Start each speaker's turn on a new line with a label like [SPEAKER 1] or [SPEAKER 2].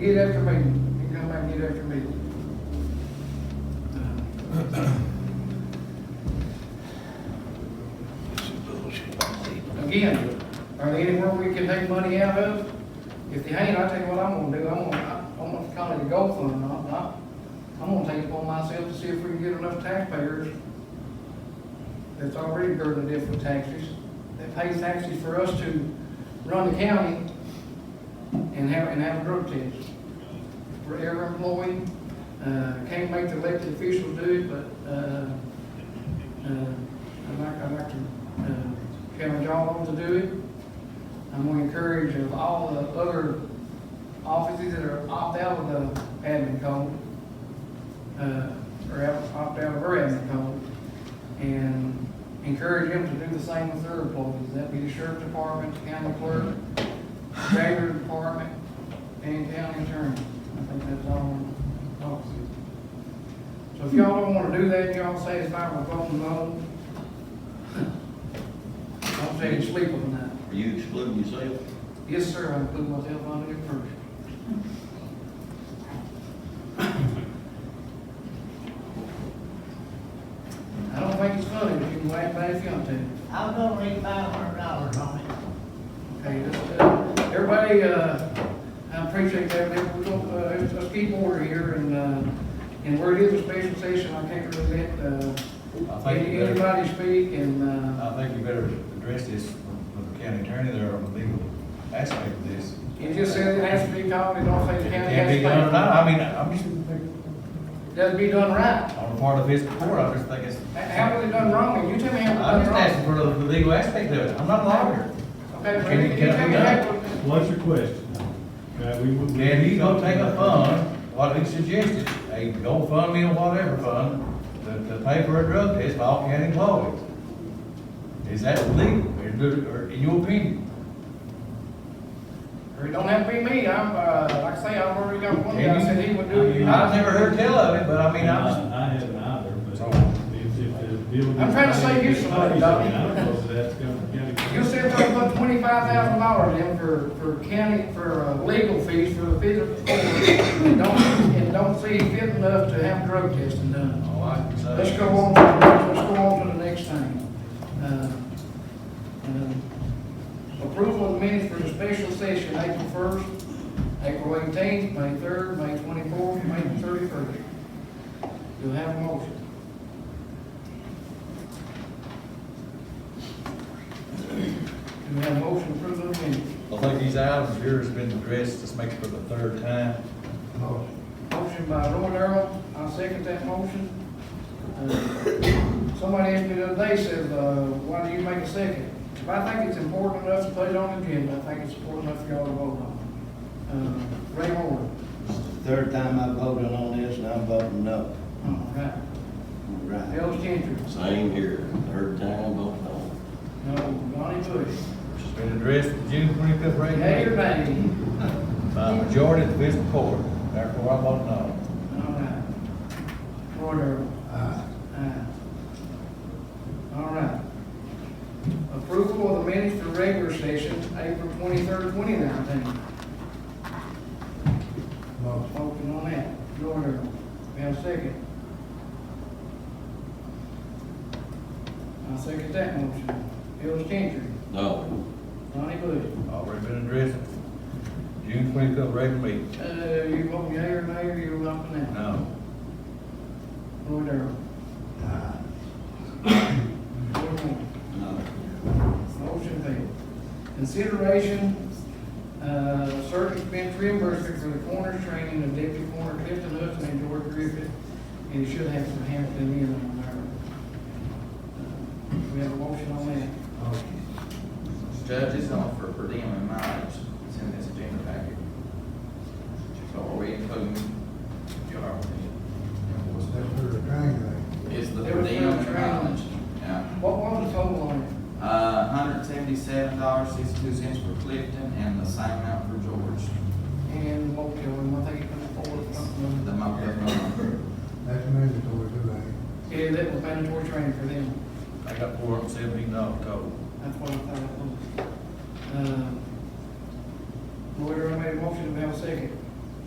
[SPEAKER 1] get after me, you come back and get after me.
[SPEAKER 2] This is bullshit.
[SPEAKER 1] Again, are there anywhere we can take money out of? If they ain't, I'll tell you what I'm gonna do, I'm gonna, I'm gonna call it a gold fund, and I'm not, I'm gonna take it upon myself to see if we can get enough taxpayers that's already burdened with different taxes, that pays taxes for us to run the county and have, and have a drug test. For every employee, uh, can't make the elected officials do it, but, uh, uh, I'd like, I'd like to, uh, challenge all of them to do it. I'm gonna encourage of all the other offices that are opt out of the admin code, uh, or out- opt out of our admin code, and encourage them to do the same with their employees, that be the sheriff department, the county clerk, jailer department, and county attorney. I think that's all offices. So if y'all don't wanna do that, y'all say it's not my phone, no. I'm saying sleep on that.
[SPEAKER 2] Are you excluding yourself?
[SPEAKER 1] Yes, sir, I put myself on it first. I don't think it's funny, but you can whack back if you want to.
[SPEAKER 3] I'm gonna leave five hundred dollars on it.
[SPEAKER 1] Okay, that's, uh, everybody, uh, I appreciate that, but we're gonna, uh, let's- let's keep order here and, uh, and where it is a special session, I can't really let, uh,
[SPEAKER 4] I think you better,
[SPEAKER 1] anybody speak and, uh,
[SPEAKER 4] I think you better address this with the county attorney there on the legal aspect of this.
[SPEAKER 1] it just says it has to be called, it don't say the county
[SPEAKER 4] It can't
[SPEAKER 1] has
[SPEAKER 4] be done, no,
[SPEAKER 1] to
[SPEAKER 4] I mean, I'm just,
[SPEAKER 1] pay. Doesn't be done right.
[SPEAKER 4] on the part of his court, I just think it's.
[SPEAKER 1] How was it done wrong? And you tell me how
[SPEAKER 4] I'm
[SPEAKER 1] it was
[SPEAKER 4] just
[SPEAKER 1] done
[SPEAKER 4] asking for the the legal aspect of it, I'm not a lawyer.
[SPEAKER 1] wrong. Okay,
[SPEAKER 4] Can
[SPEAKER 1] well,
[SPEAKER 4] it-
[SPEAKER 1] you
[SPEAKER 4] can it
[SPEAKER 1] tell
[SPEAKER 4] be
[SPEAKER 1] me
[SPEAKER 4] done?
[SPEAKER 1] how.
[SPEAKER 5] What's your question? Uh, we would-
[SPEAKER 4] Can you go take a fund, what he suggested, a GoFundMe or whatever fund, to, to pay for a drug test by all county employees? Is that legal, or, or in your opinion?
[SPEAKER 1] Or it don't have to be me. I'm, uh, like I say, I've already got one guy said he would do it.
[SPEAKER 4] I've
[SPEAKER 1] I-
[SPEAKER 4] never heard tell of it, but I mean, I'm just.
[SPEAKER 5] I I haven't either, but
[SPEAKER 4] So-
[SPEAKER 5] if, if the building.
[SPEAKER 1] Oh. I'm trying to save you some money, Doc.
[SPEAKER 5] I mean, I suppose that's gonna- gonna-
[SPEAKER 1] You said they put twenty-five thousand dollars in for, for county, for uh, legal fees for the physical court. And don't, and don't see fit enough to have drug testing done.
[SPEAKER 4] All I can say.
[SPEAKER 1] Let's go on, to the- let's go on to the next thing. Uh, uh, Approval of minutes for the special session, April first, April eighteenth, May third, May twenty-fourth, May thirty-first. You'll have a motion. You have a motion to approve those minutes.
[SPEAKER 4] I think these items here has been addressed, this makes for the third time.
[SPEAKER 1] Motion by Roy Darrell, I second that motion. Uh, Somebody asked me the other day, said, uh, why do you make a second? If I think it's important enough to put it on the agenda, I think it's important enough for y'all to vote on. it. Uh, Ray Moore,
[SPEAKER 2] This is the third time I voted on this, and I'm voting no.
[SPEAKER 1] all right.
[SPEAKER 2] Right.
[SPEAKER 1] Ellis Changer,
[SPEAKER 6] Same here, third time, both of
[SPEAKER 1] no, Donnie Bush,
[SPEAKER 4] It's been addressed at June twenty-fifth regular
[SPEAKER 1] yea or
[SPEAKER 4] meeting
[SPEAKER 1] nay?
[SPEAKER 4] by a majority of the fiscal court, therefore I vote no.
[SPEAKER 1] All right. Roy Darrell. Aye. All right. Approval of the minutes for regular session, April twenty-third, twenty nineteen. Motion on that, Jordan, we have a second. I second that motion. Bill Changer,
[SPEAKER 6] them. No,
[SPEAKER 1] Donnie Bush.
[SPEAKER 4] Already been addressed at June twenty-fifth regular meeting,
[SPEAKER 1] Uh, you vote yea or nay, or you're not for that?
[SPEAKER 4] no.
[SPEAKER 1] Roy Darrell. Roy Moore.
[SPEAKER 6] no.
[SPEAKER 1] Motion failed. Consideration, uh, certain expense reimbursement for the coroner's training of deputy coroner Clifton Hudson and George Griffith, and it should have some Hampton in on there. Uh, We have a motion on that.
[SPEAKER 7] Judge, it's an offer per diem and mileage, it's in this agenda packet. So are we including your It's the per diem and mileage, yeah.
[SPEAKER 1] What was the total on it?
[SPEAKER 7] Uh, hundred seventy-seven dollars, sixty-two cents for Clifton and the same amount for George,
[SPEAKER 1] And what, and I think it comes forward or
[SPEAKER 7] the
[SPEAKER 1] something.
[SPEAKER 7] month of November.
[SPEAKER 8] That's mandatory today.
[SPEAKER 1] Yeah, that was mandatory training for them.
[SPEAKER 4] I got four hundred and seventeen dollars total.
[SPEAKER 1] That's what I thought it was. Um, Lawyer, I made a motion, we have a second.